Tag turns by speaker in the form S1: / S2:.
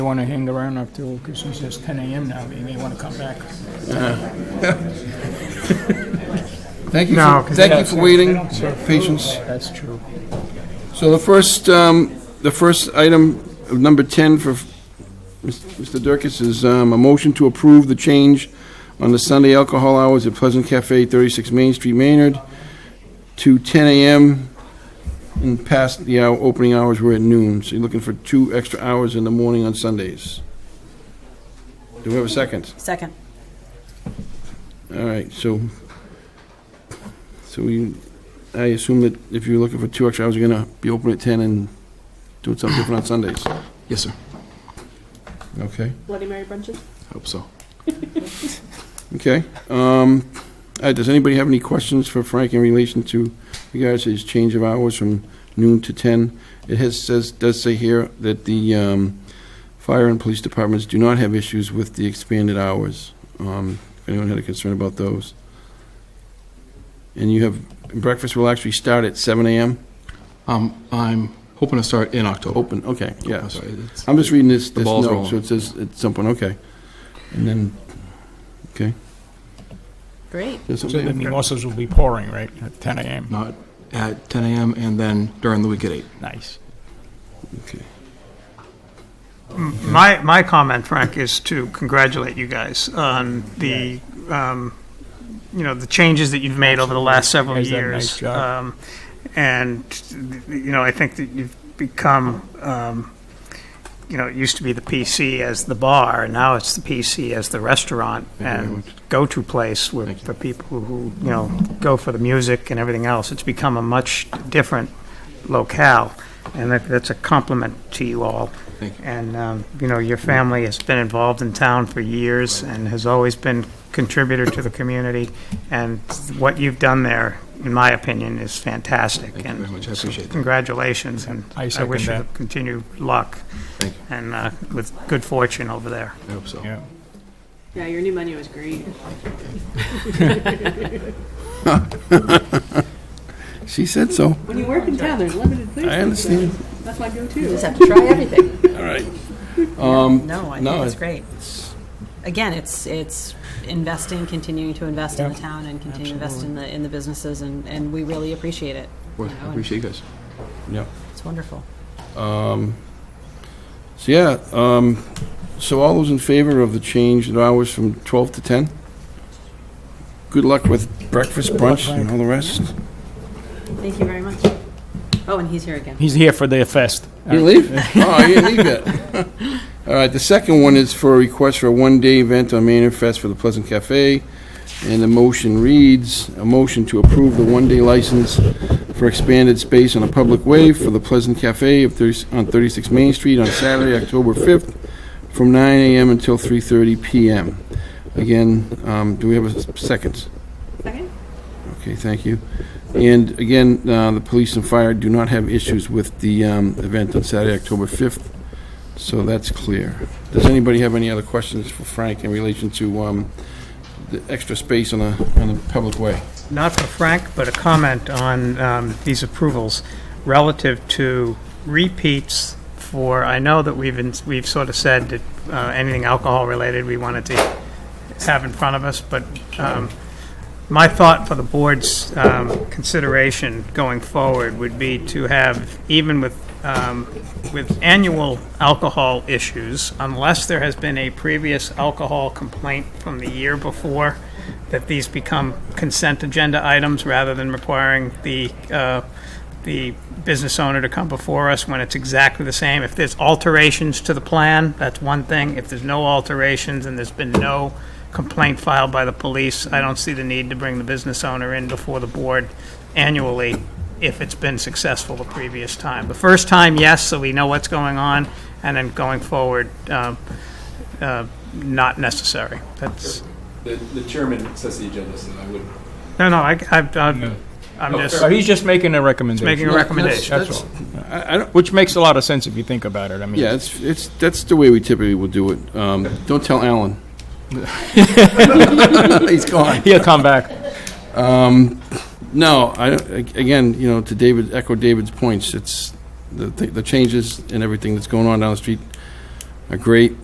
S1: They want to hang around up till, because he says 10 a.m. now, they may want to come back.
S2: Thank you
S3: No,
S2: for, thank
S3: 'cause
S1: they
S2: you
S1: don't
S2: for
S1: serve-
S2: waiting,
S1: they don't serve food.
S2: patience.
S1: That's true.
S2: So the first, um, the first item, number 10 for Mr. Durkis is um, a motion to approve the change on the Sunday alcohol hours at Pleasant Cafe, 36 Main Street, Maynard, to 10 a.m. and past the hour, opening hours were at noon. So you're looking for two extra hours in the morning on Sundays. Do we have a second?
S4: Second.
S2: All right, so, so we, I assume that if you're looking for two extra hours, you're gonna be open at 10 and doing something different on Sundays.
S3: Yes, sir.
S2: Okay.
S5: Bloody Mary brunches?
S3: Hope so.
S2: Okay. Um, all right, does anybody have any questions for Frank in relation to regards to his change of hours from noon to 10? It has, says, does say here that the um, fire and police departments do not have issues with the expanded hours. Um, If anyone had a concern about those. And you have, breakfast will actually start at 7 a.m.?
S3: Um, I'm hoping to start in October.
S2: Open, okay,
S3: I'm
S2: Oh, yeah.
S3: sorry, it's-
S2: I'm just reading this,
S3: The
S2: this
S3: ball's
S2: note,
S3: rolling.
S2: so it says at some point, okay. And then,
S4: Great.
S2: there's
S1: So the
S2: something,
S1: mimosas will be pouring, right, at 10 a.m.?
S3: Not at 10 a.m. and then during the week at 8.
S1: Nice.
S2: okay.
S6: My, my comment, Frank, is to congratulate you guys on the, um, you know, the changes that you've made over the last several
S1: Guys done a
S6: years.
S1: nice job.
S6: Um, And, you know, I think that you've become, um, you know, it used to be the PC as the bar, and now it's the PC as the restaurant
S3: Thank you very
S6: and
S3: much.
S6: go-to place with,
S3: Thank you.
S6: for people who, you know, go for the music and everything else. It's become a much different locale, and that- that's a compliment to you all.
S3: Thank you.
S6: And, um, you know, your family has been involved in town for years and has always been contributor to the community, and what you've done there, in my opinion, is fantastic.
S3: Thank you very much. I appreciate that.
S6: Congratulations, and
S1: I
S6: I
S1: second
S6: wish you
S1: that.
S6: continued luck
S3: Thank you.
S6: and uh, with good fortune over there.
S3: I hope so.
S1: Yeah.
S5: Yeah, your new menu is great.
S2: She said so.
S5: When you work in town, there's limited places.
S2: I understand.
S5: That's my go-to.
S4: Just have to try everything.
S2: All right. Um,
S4: No, I
S2: No,
S4: think it's
S2: it-
S4: great. Again, it's, it's investing, continuing to invest in the town and continue to invest in the, in the businesses, and, and we really appreciate it.
S3: Well, I appreciate you guys.
S2: yeah.
S4: It's wonderful.
S2: So, yeah, um, so all those in favor of the change in hours from 12 to 10? Good luck with breakfast, brunch, and all the rest.
S4: Thank you very much. Oh, and he's here again.
S1: He's here for their fest.
S2: You leave? Oh, you didn't leave yet. All right, the second one is for a request for a one-day event on Manor Fest for the Pleasant Cafe, and the motion reads, a motion to approve the one-day license for expanded space on a public way for the Pleasant Cafe of 30 on 36 Main Street on Saturday, October 5th, from 9 a.m. until 3:30 p.m. Again, um, do we have a s- second?
S5: Second?
S2: Okay, thank you. And again, uh, the police and fire do not have issues with the um, event on Saturday, October 5th, so that's clear. Does anybody have any other questions for Frank in relation to um, the extra space on the, on the public way?
S6: not for Frank, but a comment on um, these approvals relative to repeats for, I know that we've, ins- we've sort of said that uh, anything alcohol-related we wanted to have in front of us, but um, my thought for the board's um, consideration going forward would be to have, even with, um, with annual alcohol issues, unless there has been a previous alcohol complaint from the year before, that these become consent agenda items rather than requiring the, uh, the business owner to come before us when it's exactly the same. If there's alterations to the plan, that's one thing. If there's no alterations and there's been no complaint filed by the police, I don't see the need to bring the business owner in before the board annually if it's been successful the previous time. The first time, yes, so we know what's going on, and then going forward, um, uh, not necessary. That's,
S7: The, the chairman sets the agenda, so I would.
S6: no, no, I, I've, I've- I'm just
S1: So he's just making a recommendation.
S6: making a recommendation.
S1: That's all. Which makes a lot of sense if you think about it, I mean.
S2: Yeah, it's, it's, that's the way we typically will do it. Um, Don't tell Alan. He's gone.
S1: He'll come back.
S2: No, I, don't- again, you know, to David, echo David's points, it's the, the changes and everything that's going on down the street a great